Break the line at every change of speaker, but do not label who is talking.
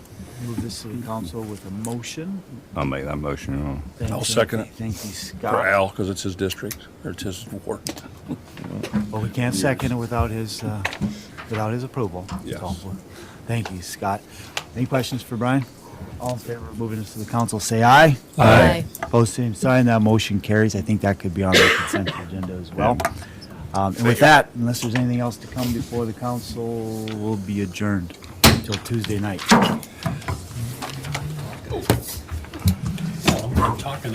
move this to the council with a motion.
I'll make that motion. you know.
Thank
I'll
you.
second it.
Thank you,
For
Scott.
Al, because it's his district, or it's his ward.
But we can't second it without his, uh, without his approval.
Yes.
So, Thank you, Scott. Any questions for Brian? All in favor of moving this to the council, say aye.
Aye.
Opposed, same sign. That motion carries. I think that could be on the consent agenda as well. Um, And with that, unless there's anything else to come before the council, will be adjourned until Tuesday night.
Talking